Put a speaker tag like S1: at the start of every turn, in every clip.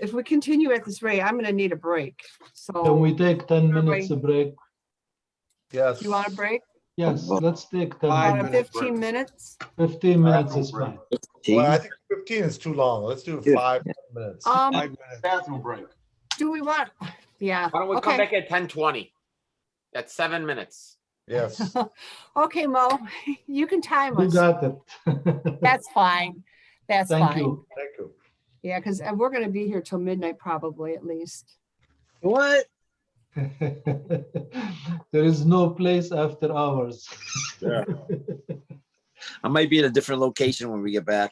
S1: if we continue at this rate, I'm gonna need a break.
S2: Can we
S1: So
S2: take ten
S1: Everybody-
S2: minutes a break?
S3: Yes.
S1: you want a break?
S2: Yes, let's take
S4: Five
S2: ten
S1: About
S2: minutes.
S4: minutes.
S1: fifteen minutes?
S2: Fifteen
S3: Five
S2: minutes
S3: minute
S2: is
S3: break.
S2: fine.
S3: Well, I think fifteen is too long. Let's do
S5: Yeah.
S3: five minutes.
S1: Um,
S4: Five minutes.
S6: Bathroom break.
S1: do we want, yeah,
S7: Why don't we come
S1: Okay.
S7: back at ten twenty? That's seven minutes.
S3: Yes.
S1: okay, Mo, you can time
S2: You
S1: us.
S2: got it.
S1: That's fine. That's
S2: Thank
S1: fine.
S2: you.
S3: Thank you.
S1: Yeah, because we're gonna be here till midnight probably at least.
S4: What?
S2: There is no place after hours.
S5: Yeah. I might be in a different location when we get back.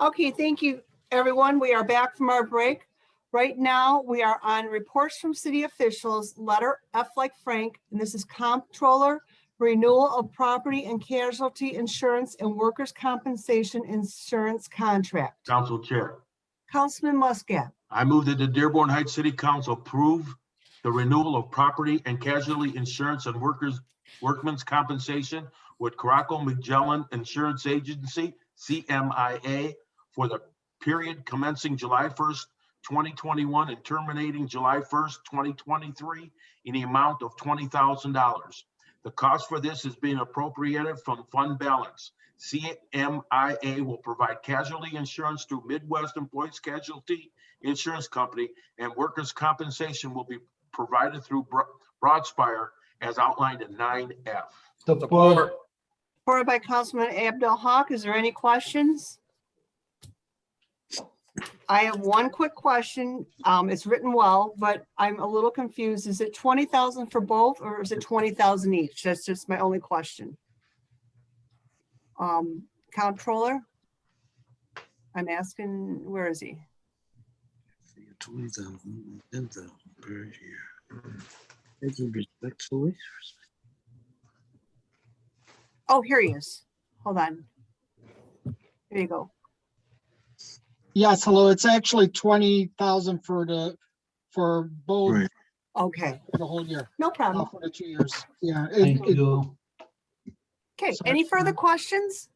S1: Okay, thank you, everyone. We are back from our break. Right now, we are on reports from city officials, letter F like Frank, and this is comptroller, renewal of property and casualty insurance and workers' compensation insurance contract.
S6: Council Chair,
S1: Councilman Muscat,
S6: I move that the Dearborn Heights City Council approve the renewal of property and casualty insurance and workers' workmen's compensation with Caraco Magellan Insurance Agency, CMIA, for the period commencing July first, twenty twenty-one and terminating July first, twenty twenty-three in the amount of twenty thousand dollars. The cost for this is being appropriated from fund balance. CMIA will provide casualty insurance through Midwest Employees Casualty Insurance Company, and workers' compensation will be provided through Bro- Broadspire as outlined in nine F.
S2: Support,
S1: supported by Councilman Abdul Hawk. Is there any questions? I have one quick question. Um, it's written well, but I'm a little confused. Is it twenty thousand for both or is it twenty thousand each? That's just my only question. Um, Controller? I'm asking, where is he?
S5: Twenty thousand, ten thousand per year. Thank you respectfully.
S1: Oh, here he is. Hold on. There you go.
S8: Yes, hello. It's actually twenty thousand for the, for both,
S5: Right.
S1: Okay,
S8: for the whole year,
S1: no problem.
S8: not for the two years. Yeah, it,
S2: thank
S8: it,
S2: you.
S1: Okay,
S8: Sorry.
S1: any further questions?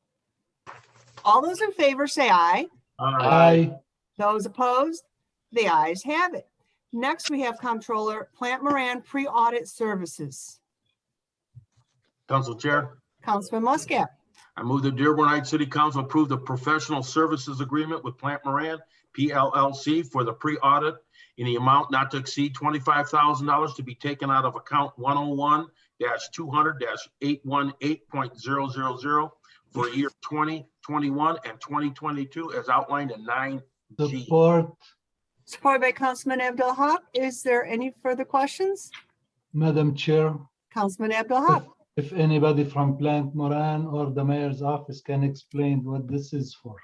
S1: All those in favor say aye.
S2: Aye,
S1: Those opposed? The ayes have it. Next, we have Comptroller Plant Moran Pre-Audit Services.
S6: Council Chair.
S1: Councilman Muscat,
S6: I move the Dearborn Heights City Council approve the professional services agreement with Plant Moran, PLLC, for the pre-audit in the amount not to exceed twenty-five thousand dollars to be taken out of account one oh one two hundred eight one eight point zero zero zero for year twenty twenty-one and twenty twenty-two as outlined in nine G.
S2: support,
S1: supported by Councilman Abdul Haq. Is there any further questions?
S2: Madam Chair.
S1: Councilman Abdul
S2: If
S1: Haq,
S2: if anybody from Plant Moran or the mayor's office can explain what this is for.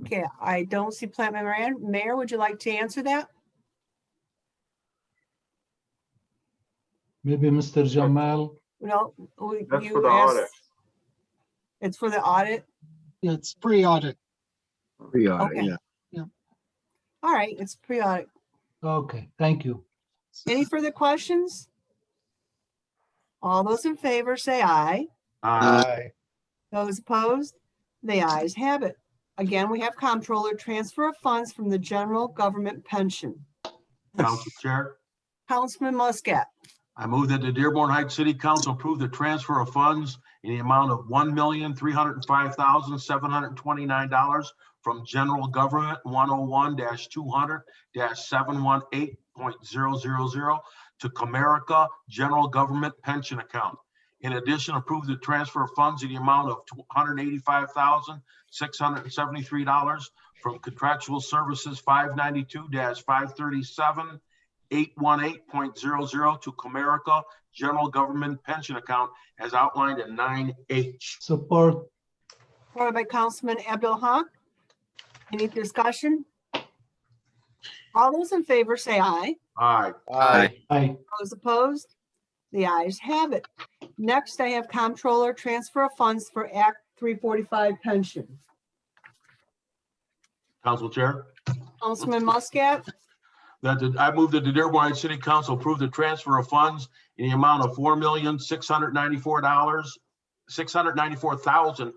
S1: okay, I don't see Plant Moran. Mayor, would you like to answer that?
S2: Maybe Mr. Jamal,
S1: No, we-
S6: That's for
S1: you
S6: the audit.
S1: asked. It's for the audit?
S8: it's pre-audit.
S5: We are,
S1: Okay.
S5: yeah.
S1: All right, it's pre-audit.
S2: okay, thank you.
S1: Any further questions? All those in favor say aye.
S6: Uh,
S3: Aye.
S1: Those opposed? The ayes have it. Again, we have comptroller transfer of funds from the general government pension.
S6: Council Chair.
S1: Councilman Muscat,
S6: I move that the Dearborn Heights City Council approve the transfer of funds in the amount of one million, three hundred and five thousand, seven hundred and twenty-nine dollars from General Government one oh one two hundred seven one eight point zero zero zero to Comerica General Government Pension Account. In addition, approve the transfer of funds in the amount of two hundred and eighty-five thousand, six hundred and seventy-three dollars from Contractual Services five ninety-two five thirty-seven 818.00 to Comerica General Government Pension Account as outlined in 9H.
S2: Support,
S1: supported by Councilman Abdul Haq. Any discussion? All those in favor say aye.
S6: Aye.
S3: Aye.
S2: aye,
S1: Those opposed? The ayes have it. Next, I have comptroller transfer of funds for Act 345 pension.
S6: Council Chair?
S1: Councilman Muscat,
S6: That the- I move that the Dearborn Heights City Council approve the transfer of funds in the amount of four million, six hundred ninety-four dollars, six hundred ninety-four thousand,